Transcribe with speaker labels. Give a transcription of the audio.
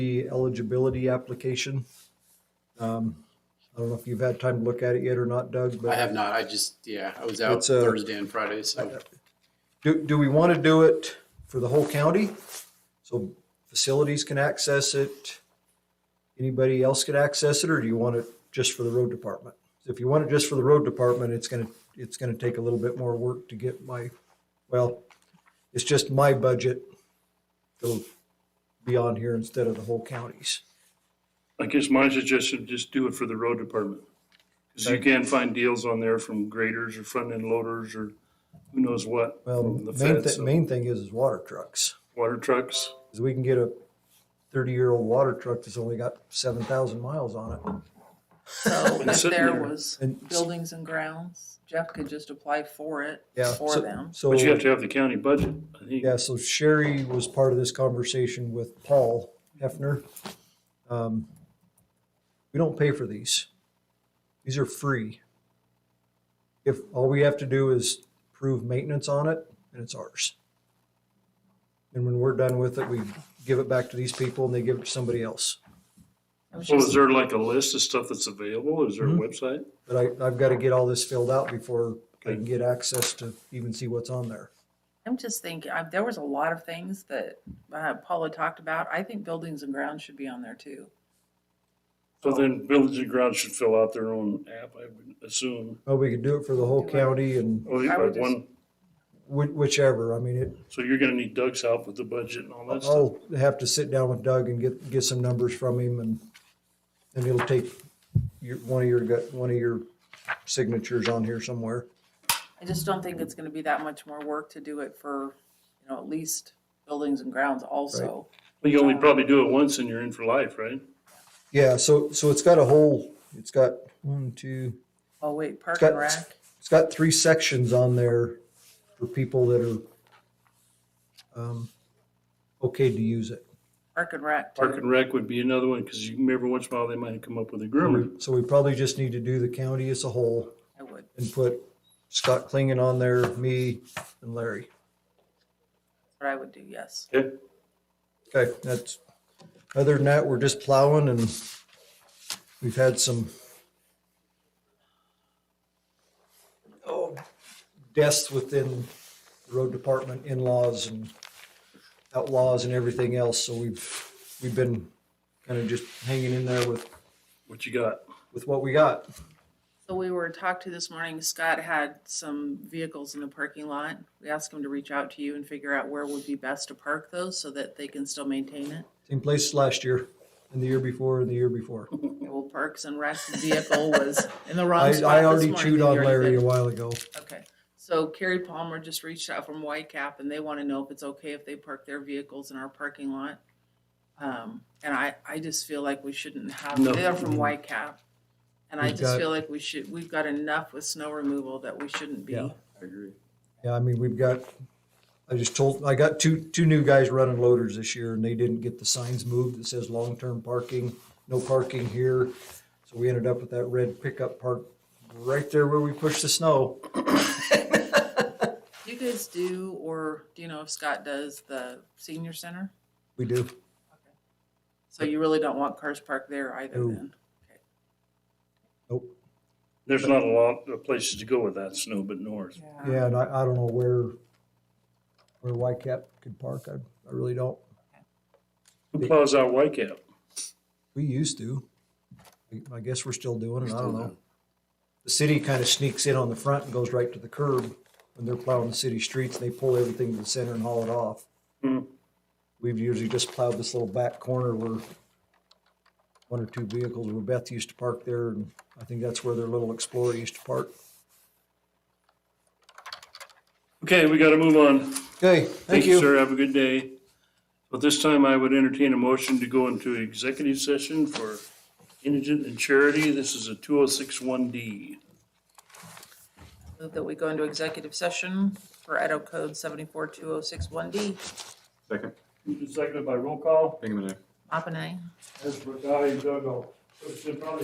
Speaker 1: the eligibility application. Um, I don't know if you've had time to look at it yet or not, Doug,
Speaker 2: I
Speaker 1: but
Speaker 2: have not. I just, yeah, I was out
Speaker 1: It's uh, a-
Speaker 2: Thursday and Friday, so
Speaker 1: do, do we want to do it for the whole county? So facilities can access it? Anybody else can access it, or do you want it just for the road department? If you want it just for the road department, it's gonna, it's gonna take a little bit more work to get my, well, it's just my budget to be on here instead of the whole county's.
Speaker 3: I guess my suggestion, just do it for the road department. Cause you can find deals on there from graders or front end loaders or who knows what.
Speaker 1: Well,
Speaker 3: from the
Speaker 1: main,
Speaker 3: feds,
Speaker 1: thi-
Speaker 3: so
Speaker 1: main thing is, is water trucks.
Speaker 3: Water trucks.
Speaker 1: is we can get a thirty-year-old water truck that's only got seven thousand miles on it.
Speaker 4: So if
Speaker 3: sitting
Speaker 4: Oh, there
Speaker 3: there.
Speaker 4: was
Speaker 1: And-
Speaker 4: buildings and grounds, Jeff could just apply for it
Speaker 1: Yeah,
Speaker 4: for
Speaker 1: so-
Speaker 4: them.
Speaker 1: So,
Speaker 3: But you have to have the county budget, I think.
Speaker 1: yeah, so Sherry was part of this conversation with Paul Hefner. Um, We don't pay for these. These are free. If, all we have to do is prove maintenance on it, and it's ours. And when we're done with it, we give it back to these people and they give it to somebody else.
Speaker 4: It was
Speaker 3: Well,
Speaker 4: just-
Speaker 3: is there like a list of stuff that's available? Is there a
Speaker 1: Mhm.
Speaker 3: website?
Speaker 1: But I, I've got to get all this filled out before I can
Speaker 3: Okay.
Speaker 1: get access to even see what's on there.
Speaker 4: I'm just thinking, I, there was a lot of things that uh, Paula talked about. I think buildings and grounds should be on there too.
Speaker 3: So then Village and Grounds should fill out their own app, I would assume. Oh,
Speaker 1: Oh, we could do it for the whole
Speaker 4: Do it.
Speaker 1: county and
Speaker 3: Or
Speaker 4: I would
Speaker 3: like one,
Speaker 1: whi- whichever. I mean, it,
Speaker 3: so you're gonna need Doug's help with the budget and all
Speaker 1: Oh,
Speaker 3: that stuff.
Speaker 1: I'll have to sit down with Doug and get, get some numbers from him and, and it'll take your, one of your, gut- one of your signatures on here somewhere.
Speaker 4: I just don't think it's gonna be that much more work to do it for, you know, at least buildings and grounds also.
Speaker 3: You only probably do it once and you're in for life, right?
Speaker 1: Yeah, so, so it's got a whole, it's got one, two,
Speaker 4: Oh, wait, park
Speaker 1: got-
Speaker 4: and rec,
Speaker 1: it's got three sections on there for people that are, um, okay to use it.
Speaker 4: park and rec
Speaker 3: Park
Speaker 4: too.
Speaker 3: and Rec would be another one, cause you, every once in a while they might come up with a groomer.
Speaker 1: So we probably just need to do the county as a whole
Speaker 4: I would.
Speaker 1: and put Scott Klingon on there, me and Larry.
Speaker 4: That's what I would do, yes.
Speaker 3: Okay?
Speaker 1: Okay, that's, other than that, we're just plowing and we've had some oh, deaths within the road department, in-laws and outlaws and everything else, so we've, we've been kind of just hanging in there with,
Speaker 3: What you got?
Speaker 1: with what we got.
Speaker 4: So we were talked to this morning, Scott had some vehicles in the parking lot. We asked him to reach out to you and figure out where would be best to park those so that they can still maintain it.
Speaker 1: Same place last year and the year before and the year before.
Speaker 4: Well, Parks and Rec's vehicle was in the wrong
Speaker 1: I,
Speaker 4: spot
Speaker 1: I
Speaker 4: this
Speaker 1: already
Speaker 4: morning.
Speaker 1: chewed
Speaker 4: You
Speaker 1: on
Speaker 4: already
Speaker 1: Larry
Speaker 4: did.
Speaker 1: a while ago.
Speaker 4: Okay, so Carrie Palmer just reached out from Whitecap and they want to know if it's okay if they park their vehicles in our parking lot. Um, and I, I just feel like we shouldn't have,
Speaker 3: No.
Speaker 4: they're from Whitecap. And I
Speaker 1: We've
Speaker 4: just
Speaker 1: got-
Speaker 4: feel like we should, we've got enough with snow removal that we shouldn't be.
Speaker 1: Yeah.
Speaker 2: I agree.
Speaker 1: Yeah, I mean, we've got, I just told, I got two, two new guys running loaders this year and they didn't get the signs moved that says long-term parking, no parking here. So we ended up with that red pickup parked right there where we pushed the snow.
Speaker 4: Do you guys do, or do you know if Scott does the senior center?
Speaker 1: We do.
Speaker 4: So you really don't want cars parked there either
Speaker 1: No.
Speaker 4: then?
Speaker 1: Nope.
Speaker 3: There's not a lot of places to go with that snow but north.
Speaker 1: Yeah, and I, I don't know where, where YCAP could park. I, I really don't.
Speaker 3: Who plows out Whitecap?
Speaker 1: We used to. I- I guess we're still doing it. I don't
Speaker 2: Still
Speaker 1: know.
Speaker 2: do.
Speaker 1: The city kind of sneaks in on the front and goes right to the curb when they're plowing the city streets. They pull everything to the center and haul it off.
Speaker 3: Hmm.
Speaker 1: We've usually just plowed this little back corner where one or two vehicles where Beth used to park there. And I think that's where their little Explorer used to park.
Speaker 3: Okay, we gotta move on.
Speaker 1: Okay, thank you.
Speaker 3: Sir, have a good day. But this time I would entertain a motion to go into executive session for indigent and charity. This is a two oh six one D.
Speaker 4: Move that we go into executive session for Edo Code seventy-four two oh six one D.
Speaker 2: Second,
Speaker 3: Seconded by roll call.
Speaker 2: Bingaman, aye.
Speaker 4: Mop and I.
Speaker 3: As for Guy and Doug, I'll- it's probably